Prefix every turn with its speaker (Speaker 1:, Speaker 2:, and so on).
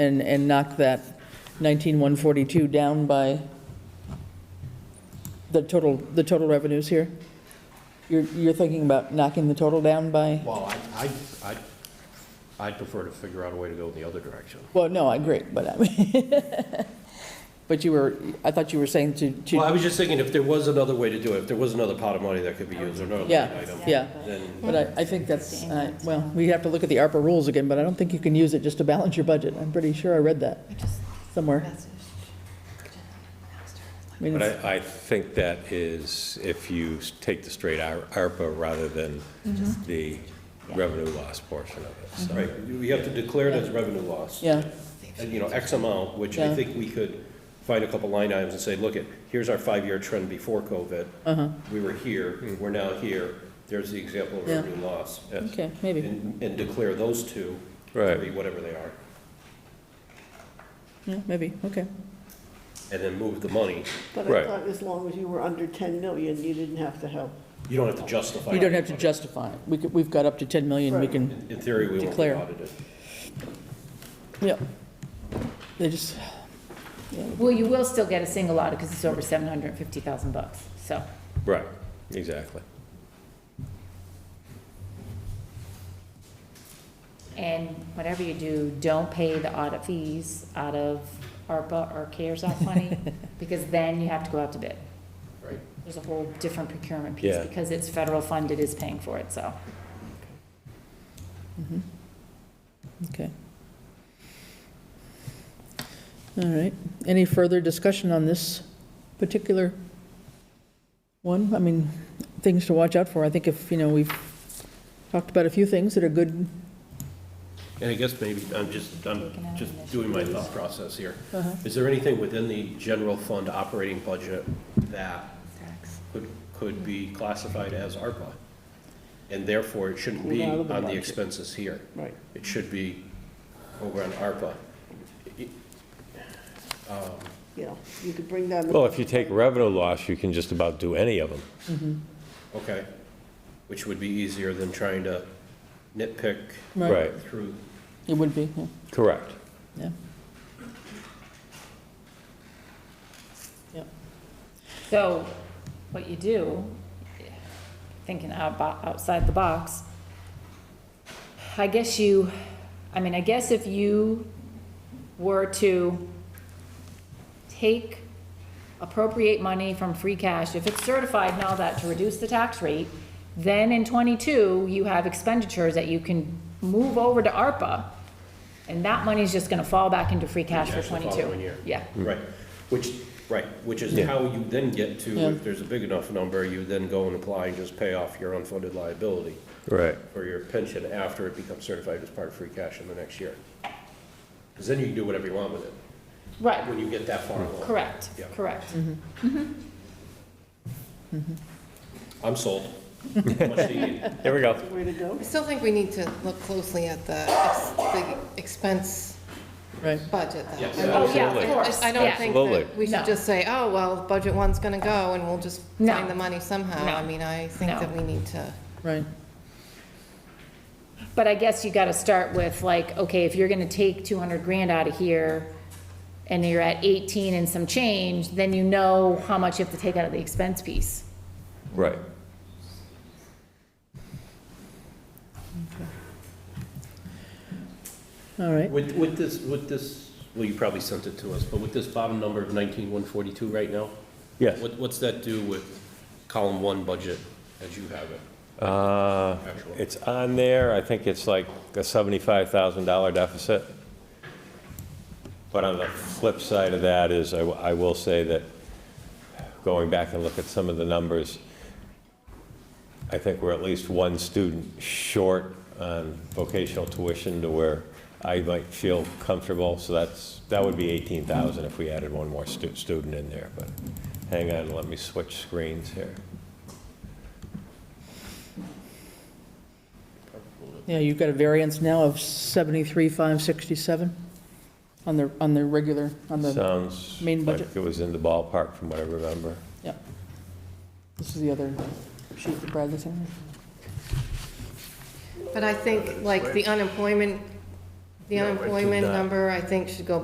Speaker 1: and, and knock that 19,142 down by the total, the total revenues here? You're, you're thinking about knocking the total down by,
Speaker 2: Well, I, I, I, I'd prefer to figure out a way to go in the other direction.
Speaker 1: well, no, I agree, but I mean- but you were, I thought you were saying to,
Speaker 2: Well, I
Speaker 1: to,
Speaker 2: was just thinking if there was another way to do it, if there was another pot of money that could be used or another line
Speaker 1: yeah,
Speaker 2: item.
Speaker 1: yeah.
Speaker 2: Then,
Speaker 1: But I, I think that's, I- well, we have to look at the ARPA rules again, but I don't think you can use it just to balance your budget. I'm pretty sure I read that somewhere. I mean,
Speaker 3: But
Speaker 1: it's-
Speaker 3: I, I think that is if you s- take the straight Ar- ARPA rather than the revenue loss portion of it, so.
Speaker 2: right, we have to declare it as revenue loss.
Speaker 1: Yeah,
Speaker 2: And, you know, X amount, which I
Speaker 1: Yeah.
Speaker 2: think we could find a couple line items and say, look, it, here's our five-year trend before COVID.
Speaker 1: Uh-huh.
Speaker 2: We were here, we're now here, there's the example of
Speaker 1: Yeah.
Speaker 2: revenue loss.
Speaker 3: Yes.
Speaker 1: okay, maybe,
Speaker 2: And, and declare those two, to
Speaker 3: Right.
Speaker 2: be whatever they are,
Speaker 1: yeah, maybe, okay.
Speaker 2: and then move the money.
Speaker 4: But I
Speaker 3: Right.
Speaker 4: thought as long as you were under 10 million, you didn't have to help.
Speaker 2: You don't have to justify.
Speaker 1: You don't
Speaker 2: it.
Speaker 1: have to justify it. We could, we've got up to 10 million, we
Speaker 4: Right.
Speaker 1: can,
Speaker 2: In theory, we won't be
Speaker 1: Declare.
Speaker 2: audited.
Speaker 1: yeah. They just,
Speaker 5: Well, you will still get a single audit because it's over 750,000 bucks, so.
Speaker 3: Right, exactly.
Speaker 5: And whatever you do, don't pay the audit fees out of ARPA or CARES Act money, because then you have to go out to bid.
Speaker 2: Right.
Speaker 5: There's a whole different procurement piece,
Speaker 3: Yeah.
Speaker 5: because it's federal funded, is paying for it, so.
Speaker 1: mm-hmm. okay. All right. Any further discussion on this particular one? I mean, things to watch out for. I think if, you know, we've talked about a few things that are good,
Speaker 2: And I guess maybe, I'm just, I'm
Speaker 5: Taken out
Speaker 2: just
Speaker 5: initiatives.
Speaker 2: doing my thought process here.
Speaker 4: Uh-huh.
Speaker 2: Is there anything within the general fund operating budget that could, could be classified as ARPA? And therefore, it shouldn't be
Speaker 4: Out of the
Speaker 2: on the
Speaker 4: budget.
Speaker 2: expenses here.
Speaker 4: Right.
Speaker 2: It should be over on ARPA.
Speaker 4: Yeah, you could bring down. the-
Speaker 3: Well, if you take revenue loss, you can just about do any of them.
Speaker 2: Okay? Which would be easier than trying to nitpick
Speaker 1: Right.
Speaker 3: Right,
Speaker 2: through.
Speaker 1: it would be, yeah.
Speaker 3: correct.
Speaker 1: Yeah. Yep.
Speaker 5: So, what you do, thinking out, bo- outside the box, I guess you, I mean, I guess if you were to take appropriate money from free cash, if it's certified and all that, to reduce the tax rate, then in twenty-two, you have expenditures that you can move over to ARPA, and that money's just gonna fall back into free cash for
Speaker 2: Cash the
Speaker 5: twenty-two.
Speaker 2: following year.
Speaker 5: Yeah.
Speaker 3: Mm.
Speaker 2: Right, which, right, which is how you then get to,
Speaker 1: Yeah.
Speaker 2: if there's a big enough number, you then go and apply and just pay off your unfunded liability
Speaker 3: Right,
Speaker 2: or your pension after it becomes certified as part of free cash in the next year. Because then you can do whatever you want with it,
Speaker 5: Right,
Speaker 2: when you get that far along.
Speaker 5: Correct,
Speaker 2: Yeah.
Speaker 5: correct.
Speaker 2: I'm sold. Much needed.
Speaker 3: there we go.
Speaker 4: the Way to go.
Speaker 6: I still think we need to look closely at the ex- the expense
Speaker 1: Right.
Speaker 6: budget, though.
Speaker 2: Yes.
Speaker 5: Oh, yeah,
Speaker 3: Absolutely.
Speaker 5: of course.
Speaker 6: I I don't
Speaker 5: yeah.
Speaker 6: think
Speaker 3: Absolutely.
Speaker 6: that we
Speaker 5: No.
Speaker 6: should just say, oh, well, budget one's going to go, and we'll just
Speaker 5: No.
Speaker 6: find the money somehow.
Speaker 5: No.
Speaker 6: I mean, I think
Speaker 5: No.
Speaker 6: that we need to,
Speaker 1: Right,
Speaker 5: But I guess you gotta start with like, okay, if you're gonna take two hundred grand out of here and you're at eighteen and some change, then you know how much you have to take out of the expense piece.
Speaker 3: Right.
Speaker 1: all right.
Speaker 2: With, with this, with this, well, you probably sent it to us, but with this bottom number of nineteen one forty-two right now?
Speaker 3: Yes.
Speaker 2: What, what's that do with column one budget as you have it?
Speaker 3: Uh,
Speaker 2: Actual.
Speaker 3: It's on there, I think it's like a $75,000 deficit. But on the flip side of that is, I w- I will say that, going back and look at some of the numbers, I think we're at least one student short on vocational tuition to where I might feel comfortable, so that's, that would be 18,000 if we added one more stu- student in there, but hang on, let me switch screens here.
Speaker 1: Yeah, you've got a variance now of 73,567 on the, on the regular, on the,
Speaker 3: Sounds
Speaker 1: main budget.
Speaker 3: like it was in the ballpark from what I remember.
Speaker 1: yeah. This is the other sheet that Bradley sent me.
Speaker 6: but I think, like, the unemployment The
Speaker 7: No, I did
Speaker 6: unemployment
Speaker 7: not.
Speaker 6: number, I think, should go